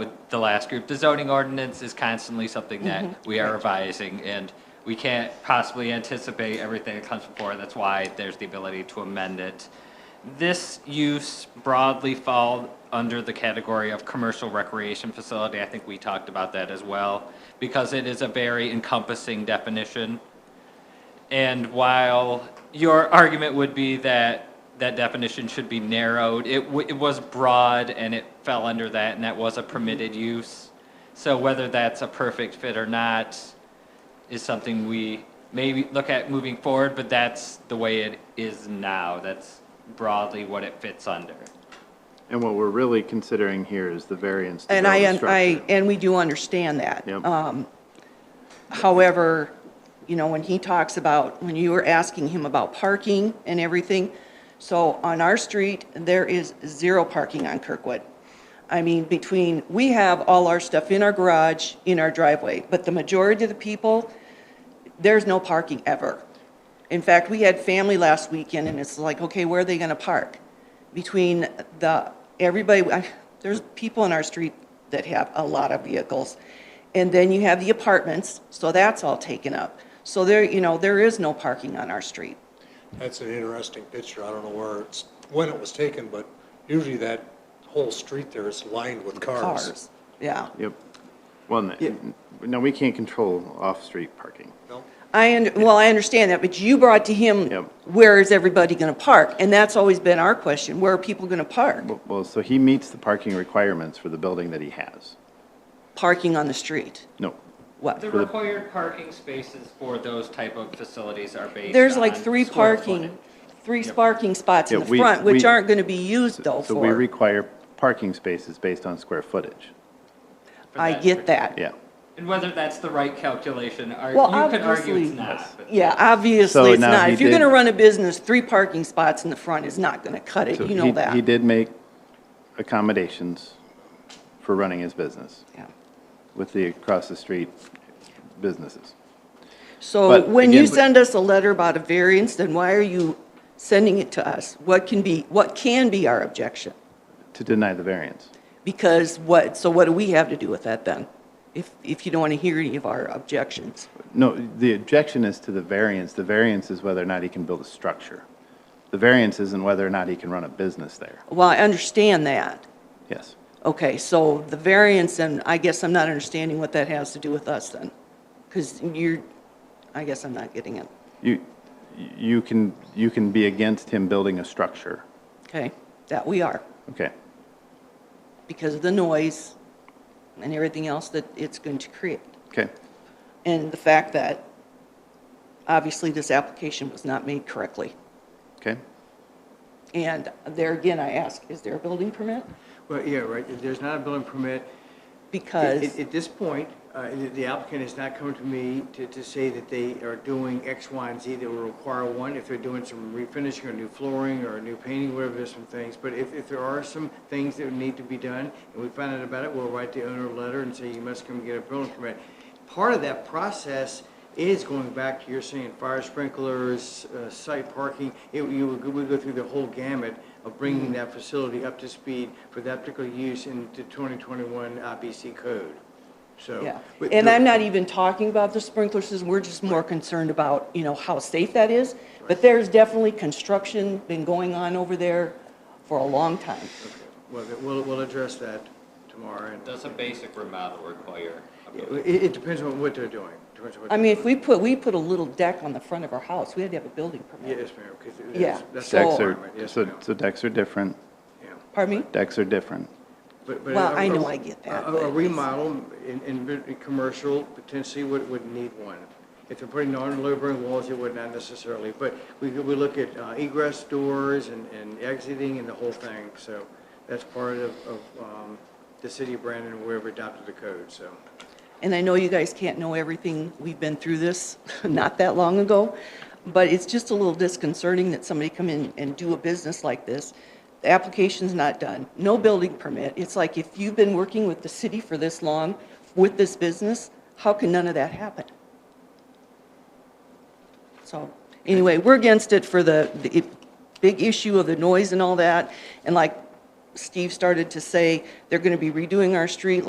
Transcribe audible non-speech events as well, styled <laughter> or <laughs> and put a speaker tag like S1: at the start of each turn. S1: with the last group, the zoning ordinance is constantly something that we are revising, and we can't possibly anticipate everything that comes before, that's why there's the ability to amend it. This use broadly fall under the category of commercial recreation facility, I think we talked about that as well, because it is a very encompassing definition. And while your argument would be that that definition should be narrowed, it, w- it was broad and it fell under that, and that was a permitted
S2: Mm-hmm.
S1: use. So whether that's a perfect fit or not is something we maybe look at moving forward, but that's the way it is now. That's broadly what it fits under.
S3: And what we're really considering here is the variance to
S2: And
S3: build
S2: I,
S3: a
S2: and I,
S3: structure.
S2: and we do understand that.
S3: Yep.
S2: Um, However, you know, when he talks about, when you were asking him about parking and everything, so on our street, there is zero parking on Kirkwood. I mean, between, we have all our stuff in our garage, in our driveway, but the majority of the people, there's no parking ever. In fact, we had family last weekend, and it's like, okay, where are they gonna park? Between the, everybody, I- there's people in our street that have a lot of vehicles. And then you have the apartments, so that's all taken up. So there, you know, there is no parking on our street.
S4: That's an interesting picture. I don't know where it's, when it was taken, but usually that whole street there is lined with cars.
S2: Cars, yeah.
S3: Yep. Well, n- no, we can't control off-street parking.
S4: No?
S2: I, und- well, I understand that, but you brought to
S3: Yep.
S2: him, where is everybody gonna park? And that's always been our question, where are people gonna park?
S3: Well- Well, so he meets the parking requirements for the building that he has.
S2: Parking on the street,
S3: No,
S2: what?
S1: The required parking spaces for those type of facilities are based
S2: There's like
S1: on
S2: three
S1: square
S2: parking,
S1: footage.
S2: three parking spots in
S3: Yeah,
S2: the
S3: we-
S2: front, which
S3: we-
S2: aren't gonna be used though
S3: so we
S2: for,
S3: require parking spaces based on square footage.
S1: for
S2: I
S1: that
S2: get that.
S3: Yeah.
S1: And whether that's the right calculation, ar-
S2: Well,
S1: you could argue it's
S2: obviously-
S1: not. but-
S2: Yeah,
S3: So
S2: obviously it's
S3: now
S2: not.
S3: he
S2: If you're
S3: did-
S2: gonna run a business, three parking spots in the front is not gonna cut it,
S3: So
S2: you
S3: he-
S2: know that.
S3: He did make accommodations for running his business
S2: Yeah.
S3: with the across-the-street businesses.
S2: So
S3: But
S2: when you
S3: again-
S2: send us a letter about a variance, then why are you sending it to us? What can be, what can be our objection?
S3: To deny the variance.
S2: Because what, so what do we have to do with that then? If, if you don't wanna hear any of our objections?
S3: No, the objection is to the variance. The variance is whether or not he can build a structure. The variance isn't whether or not he can run a business there.
S2: Well, I understand that.
S3: Yes.
S2: Okay, so the variance, and I guess I'm not understanding what that has to do with us then, because you're, I guess I'm not getting it,
S3: You, you can, you can be against him building a structure.
S2: okay? That we are,
S3: Okay.
S2: because of the noise and everything else that it's going to create.
S3: Okay.
S2: And the fact that, obviously, this application was not made correctly.
S3: Okay.
S2: And there again, I ask, is there a building permit?
S5: Well, yeah, right, If there's not a building permit.
S2: Because.
S5: At at this point, uh, the the applicant has not come to me to, to say that they are doing X, Y, and Z that will require one, if they're doing some refinishing or new flooring or new painting, whatever, there's some things. But if, if there are some things that need to be done, and we find out about it, we'll write the owner a letter and say, you must come get a building permit. Part of that process is going back to your saying fire sprinklers, uh, site parking, it, you, would go- we go through the whole gamut of
S2: Mm-hmm.
S5: bringing that facility up to speed for that particular use in the 2021 IBC code, so.
S2: Yeah,
S5: but
S2: and
S5: the-
S2: I'm not even talking about the sprinkler system, we're just more concerned about, you know, how safe that is. But there's definitely construction been going on over there for a long time.
S5: Well, th- we'll, we'll address that tomorrow, and
S1: Does a basic remodel require? a
S5: Yeah, it, it depends on what they're doing. Depends on what
S2: I
S5: they're
S2: mean, if
S5: doing.
S2: we put, we put a little deck on the front of our house, we had to have a building permit.
S5: Yes, ma'am, because it
S2: Yeah,
S5: is, that's a
S2: so-
S3: Decks are,
S5: requirement, yes,
S3: so,
S5: ma'am.
S3: so decks are different.
S5: Yeah.
S2: Pardon me?
S3: Decks are different.
S5: But- but
S2: Well,
S5: a-
S2: I know
S5: a-
S2: I get that,
S5: a-
S2: but
S5: A
S2: it's-
S5: remodel in, in, in commercial potentially would, would need one. If they're putting non-lumbering walls, it would not necessarily, but we, we look at uh, egress doors and, and exiting and the whole thing, so that's part of, of, um, the city of Brandon where we adopted the code, so.
S2: And I know you guys can't know everything, we've been through this <laughs> not that long ago, but it's just a little disconcerting that somebody come in and do a business like this. The application's not done, no building permit. It's like if you've been working with the city for this long with this business, how can none of that happen? So, anyway, we're against it for the, the i- big issue of the noise and all that. And like Steve started to say, they're gonna be redoing our street like